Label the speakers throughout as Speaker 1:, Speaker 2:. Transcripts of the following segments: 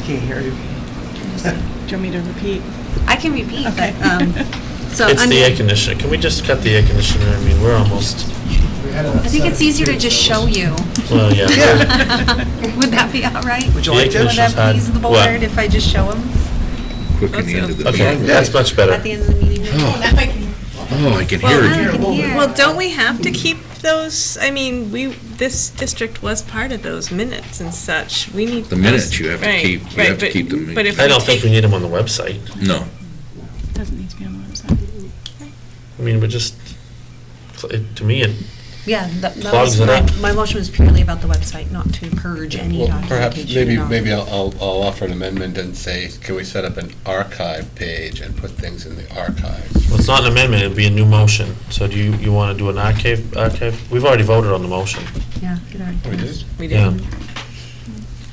Speaker 1: can't hear you.
Speaker 2: Do you want me to repeat?
Speaker 3: I can repeat,
Speaker 2: Okay.
Speaker 3: but, um, so.
Speaker 4: It's
Speaker 3: under-
Speaker 4: the air conditioner. Can we just cut the air conditioner? I mean, we're almost,
Speaker 3: I think it's easier to just show you.
Speaker 4: well, yeah.
Speaker 1: Yeah.
Speaker 3: Would that be all right?
Speaker 1: Would you
Speaker 4: The air
Speaker 1: like to?
Speaker 3: Would
Speaker 4: conditioner's
Speaker 3: that
Speaker 4: hot.
Speaker 3: please the
Speaker 4: What?
Speaker 3: board if I just show them
Speaker 5: Quick the end of the
Speaker 4: Okay,
Speaker 5: meeting.
Speaker 4: that's much
Speaker 3: at the
Speaker 4: better.
Speaker 3: end of the meeting?
Speaker 5: Oh, Oh, I can hear
Speaker 3: Well, I
Speaker 5: it.
Speaker 3: can hear.
Speaker 6: Well, don't we have to keep those, I mean, we, this district was part of those minutes and such, we need.
Speaker 5: The minutes
Speaker 6: those-
Speaker 5: you have to
Speaker 6: right,
Speaker 5: keep- you
Speaker 6: right,
Speaker 5: have to
Speaker 6: but-
Speaker 5: keep them.
Speaker 6: But if
Speaker 4: I don't
Speaker 6: we
Speaker 4: think
Speaker 6: take
Speaker 4: we need them on the website.
Speaker 5: No.
Speaker 2: Doesn't need to be on the website.
Speaker 4: I mean, we're just, it- to me, it
Speaker 3: Yeah, that that
Speaker 4: Plugs
Speaker 3: was,
Speaker 4: it
Speaker 3: my
Speaker 4: up.
Speaker 3: my motion was purely about the website, not to purge any
Speaker 7: Well,
Speaker 3: documentation.
Speaker 7: perhaps, maybe,
Speaker 3: at all.
Speaker 7: maybe I'll, I'll I'll offer an amendment and say, can we set up an archive page and put things in the archives?
Speaker 4: Well, it's not an amendment, it'd be a new motion. So do you, you want to do an archive, archive? We've already voted on the motion.
Speaker 3: Yeah, good
Speaker 7: We
Speaker 3: idea.
Speaker 7: just-
Speaker 6: We
Speaker 4: Yeah.
Speaker 6: didn't.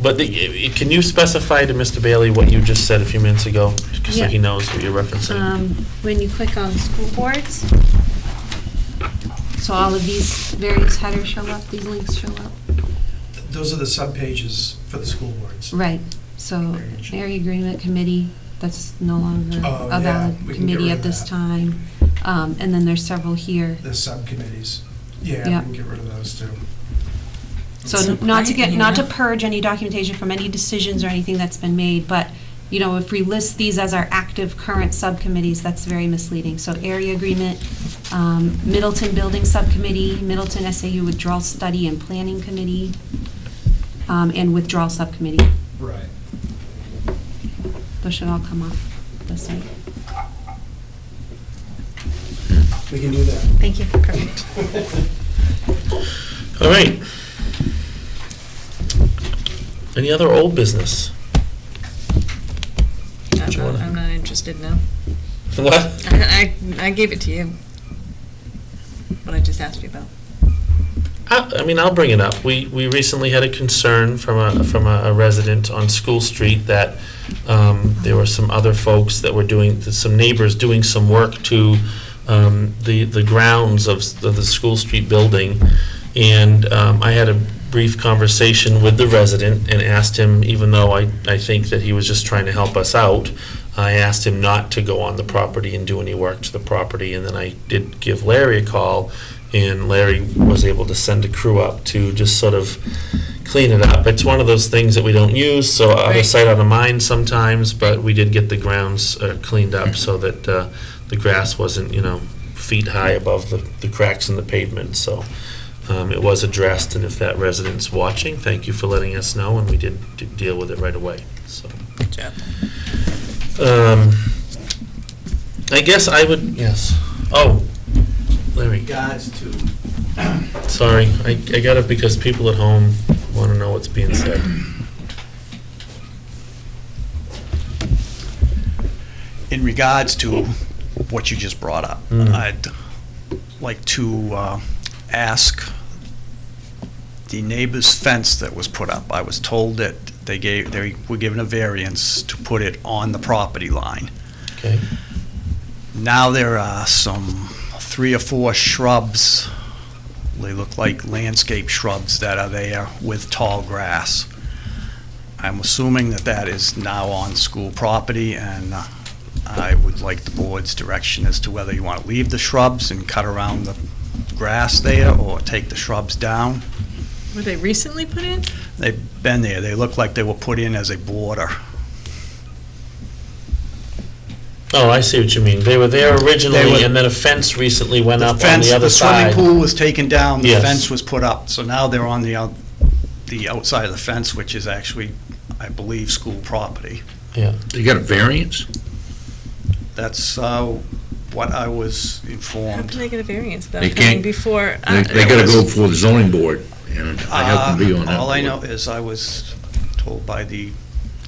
Speaker 4: But the- i- can you specify to Mr. Bailey what you just said a few minutes ago? just So
Speaker 3: Yeah.
Speaker 4: he knows what you're referencing.
Speaker 3: Um, When you click on school boards, so all of these various headers show up, these links show up.
Speaker 8: Those are the subpages for the school boards.
Speaker 3: Right, so
Speaker 8: Agreed.
Speaker 3: area agreement committee, that's no longer
Speaker 8: Oh,
Speaker 3: a
Speaker 8: yeah,
Speaker 3: valid
Speaker 8: we can get
Speaker 3: committee
Speaker 8: rid
Speaker 3: at
Speaker 8: of
Speaker 3: this
Speaker 8: that.
Speaker 3: time. Um, And then there's several here.
Speaker 8: The subcommittees. Yeah,
Speaker 3: Yeah.
Speaker 8: we can get rid of those too.
Speaker 3: So
Speaker 6: So
Speaker 3: not to get,
Speaker 6: quiet
Speaker 3: not to
Speaker 6: here.
Speaker 3: purge any documentation from any decisions or anything that's been made, but, you know, if we list these as our active current subcommittees, that's very misleading. So area agreement, um, Middleton Building Subcommittee, Middleton SAU Withdrawal Study and Planning Committee, um, and Withdrawal Subcommittee.
Speaker 8: Right.
Speaker 3: Those should all come off the site.
Speaker 8: We can do that.
Speaker 3: Thank you, perfect.
Speaker 4: All right. Any other old business?
Speaker 6: I'm
Speaker 4: you
Speaker 6: not-
Speaker 4: wanna-
Speaker 6: I'm not interested now.
Speaker 4: What?
Speaker 6: I, I I gave it to you, what I just asked you about.
Speaker 4: I I mean, I'll bring it up. We, we recently had a concern from a, from a resident on School Street that um, there were some other folks that were doing, some neighbors doing some work to um, the, the grounds of s- of the School Street building. And um, I had a brief conversation with the resident and asked him, even though I, I think that he was just trying to help us out, I asked him not to go on the property and do any work to the property. And then I did give Larry a call, and Larry was able to send a crew up to just sort of clean it up. It's one of those things that we don't use, so out of
Speaker 6: Right.
Speaker 4: sight, out of mind sometimes, but we did get the grounds uh, cleaned up so that uh, the grass wasn't, you know, feet high above the, the cracks in the pavement, so um, it was addressed, and if that resident's watching, thank you for letting us know, and we did d- deal with it right away, so.
Speaker 6: Good job.
Speaker 4: Um, I guess I would, yes. Oh, Larry,
Speaker 9: Guys, too.
Speaker 4: sorry, I, I got it because people at home want to know what's being said.
Speaker 9: In regards to what you just brought up,
Speaker 4: Mm.
Speaker 9: I'd like to uh, ask the neighbor's fence that was put up. I was told that they gave, they were given a variance to put it on the property line.
Speaker 4: Okay,
Speaker 9: Now there are some three or four shrubs, they look like landscape shrubs that are there with tall grass. I'm assuming that that is now on school property, and uh, I would like the board's direction as to whether you want to leave the shrubs and cut around the grass there, or take the shrubs down.
Speaker 6: Were they recently put in?
Speaker 9: They've been there, they look like they were put in as a border.
Speaker 4: oh, I see what you mean. They were there originally,
Speaker 9: were-
Speaker 4: and then a fence recently went
Speaker 9: The
Speaker 4: up on
Speaker 9: fence,
Speaker 4: the other
Speaker 9: the swimming
Speaker 4: side.
Speaker 9: pool was taken down, the
Speaker 4: Yes.
Speaker 9: fence was put up, so now they're on the, out- the outside of the fence, which is actually, I believe, school property.
Speaker 4: Yeah,
Speaker 5: You got a variance?
Speaker 9: That's uh, what I was
Speaker 6: How can
Speaker 9: informed.
Speaker 6: they get a variance without
Speaker 5: They
Speaker 6: coming
Speaker 5: can't.
Speaker 6: before?
Speaker 5: They,
Speaker 6: uh,
Speaker 5: they gotta go before the zoning board, and I happen to be on
Speaker 9: Uh,
Speaker 5: that.
Speaker 9: All I know
Speaker 5: board.
Speaker 9: is I was told by the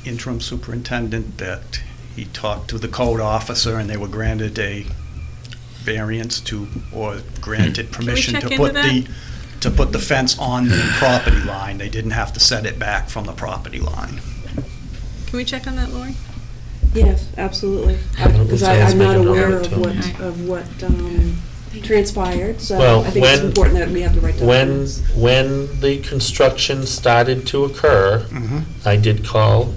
Speaker 9: interim superintendent that he talked to the code officer, and they were granted a variance to, or granted permission to
Speaker 6: check
Speaker 9: put
Speaker 6: into
Speaker 9: the, to put the fence on the property line. They didn't have to set it back from the property line.
Speaker 6: Can we check on that, Lori?
Speaker 10: Yes, absolutely.
Speaker 4: I don't know if
Speaker 10: Because
Speaker 4: Dan's
Speaker 10: I'm not
Speaker 4: making note
Speaker 10: aware
Speaker 4: of it,
Speaker 10: of
Speaker 4: too.
Speaker 10: what, of what um, transpired, so
Speaker 4: Well,
Speaker 10: I think it's
Speaker 4: when-
Speaker 10: important that we have the right
Speaker 4: when,
Speaker 10: documents.
Speaker 4: when the construction started to occur, I did call